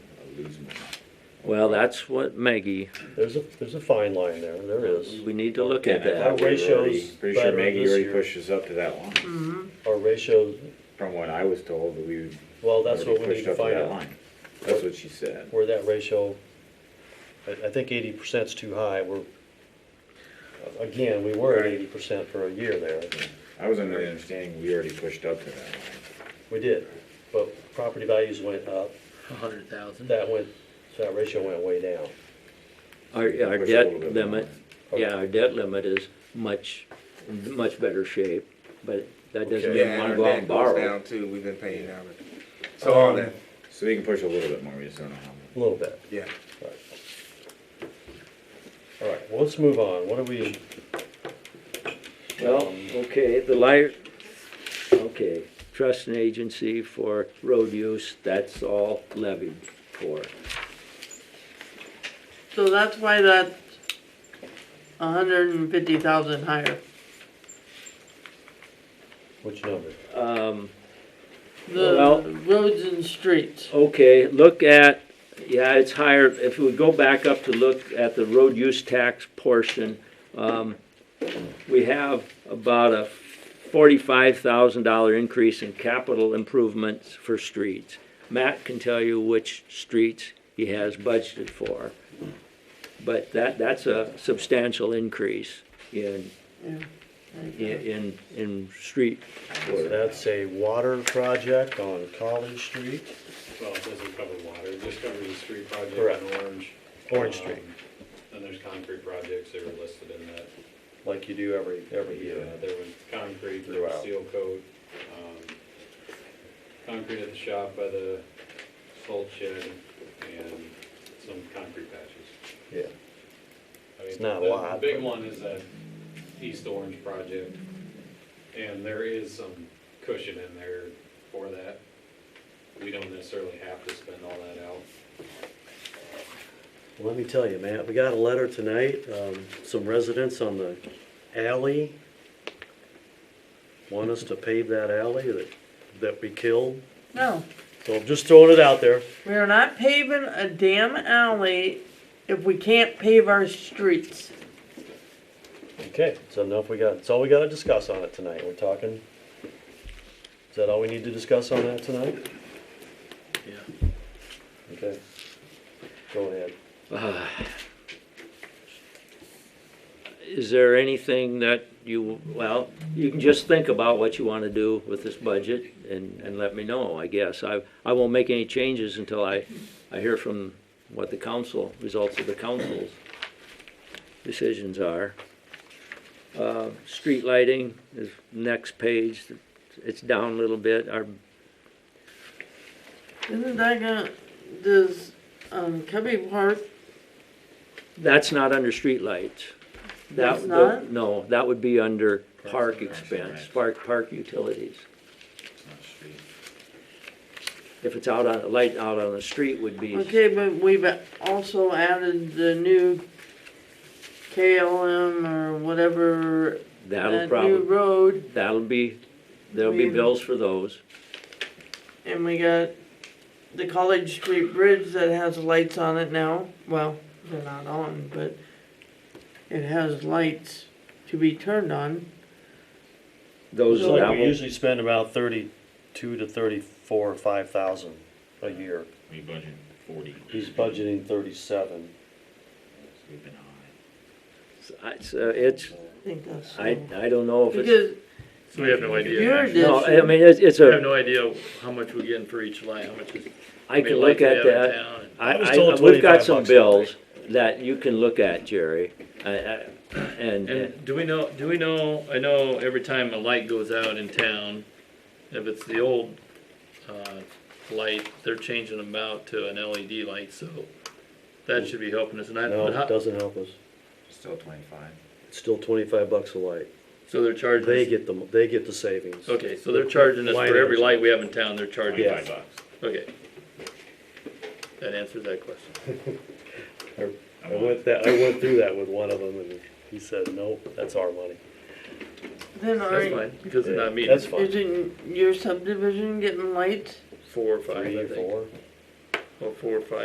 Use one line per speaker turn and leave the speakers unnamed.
Well, that's what Maggie,
There's a, there's a fine line there, there is.
we need to look at
Yeah, I
that.
Our
thought we were already-
ratios
Pretty sure
better
Maggie
this
already
year.
pushed us up to that line,
Our ratio,
from what I was told, that we.
well, that's what we
already pushed
need to
up
find
that
out,
line. That's what she said.
where that ratio, I, I think eighty percent's too high, we're, again, we were at eighty percent for a year there,
I was under the understanding we already pushed up to that line.
we did. But property values went up,
a hundred thousand.
that went, that ratio went way down.
Our, our
Push it a little
debt
bit
limit,
more.
yeah, our debt limit is much, much better shape, but that doesn't mean
Yeah,
we
and
wanna
our
go out
debt
and
goes
borrow.
down too, we've been paying down it. So all that,
So we can push a little bit more, we just don't know how
A little bit.
yeah.
All right, well, let's move on. What are we,
Well, okay, the light, okay, trust and agency for road use, that's all levied for.
So that's why that's a hundred and fifty thousand higher.
which number?
Um, Well-
The roads and streets.
Okay, look at, yeah, it's higher, if we go back up to look at the road use tax portion, um, we have about a forty-five thousand dollar increase in capital improvements for streets. Matt can tell you which streets he has budgeted for. But that, that's a substantial increase in, in, in, in street
So That's a water project on College Street,
Well, it doesn't cover water, it just covers the street project
Correct.
in Orange.
Orange Street,
Um, Then there's concrete projects that were listed in that.
like you do every, every year.
Yeah, there was concrete, there was
Throughout.
seal coat, um, concrete at the shop by the salt shed and some concrete patches.
Yeah.
I mean,
It's not a
the-
lot,
The big
but-
one is that East Orange project. And there is some cushion in there for that. We don't necessarily have to spend all that out.
Let me tell you, Matt, we got a letter tonight, um, some residents on the alley want us to pave that alley that, that we killed.
No,
So I'm just throwing it out there.
we are not paving a damn alley if we can't pave our streets.
Okay, so enough we got, that's all we gotta discuss on it tonight, we're talking. Is that all we need to discuss on that tonight?
Yeah.
Okay. Go ahead.
Uh, Is there anything that you, well, you can just think about what you want to do with this budget and, and let me know, I guess. I, I won't make any changes until I, I hear from what the council, results of the council's decisions are. Uh, Street lighting is next page, it's down a little bit. Our
Isn't that gonna, does, um, Cubby Park,
That's not under streetlights. That-
That's not?
No, that would be under park
and Recs,
expense,
right.
park, park utilities.
it's not street.
If it's out on, light out on the street would be,
okay, but we've also added the new KLM or whatever,
that'll
that new
probably,
road,
that'll be, there'll be
We-
bills for those.
and we got the College Street Bridge that has lights on it now. Well, they're not on, but it has lights to be turned on.
Those,
It's like
that
we
will,
usually spend about thirty-two to thirty-four, or five thousand a year.
We budgeted forty.
He's budgeting thirty-seven.
We've been high.
it's, uh, it's,
I think that's.
I, I don't know if it's,
Because
So we have no idea.
your
no, I
addition,
mean, it's, it's
We have
a,
no idea how much we're getting for each light, how much is.
I can look at that. I,
I was
I,
told
we've got
25
some
bucks a day.
bills that you can look at, Jerry, I, I, and, and
And do we know, do we know, I know every time a light goes out in town, if it's the old, uh, light, they're changing them out to an LED light, so that should be helping us, and I,
Mm. No,
but
it
how,
doesn't help us.
Still twenty-five.
It's still twenty-five bucks a light.
so they're charging.
They
us-
get the, they get the savings.
Okay, so they're charging us for every
Lighters.
light we have in town, they're charging
Yeah.
us,
Twenty-five bucks.
okay. That answers that question.
I went that, I went through that with one of them and he said, nope, that's our money.
then
That's
are,
fine, because they're not meeting
That's fine.
isn't your subdivision getting lights?
four or five,
Three,
I think,
four.
or four or five.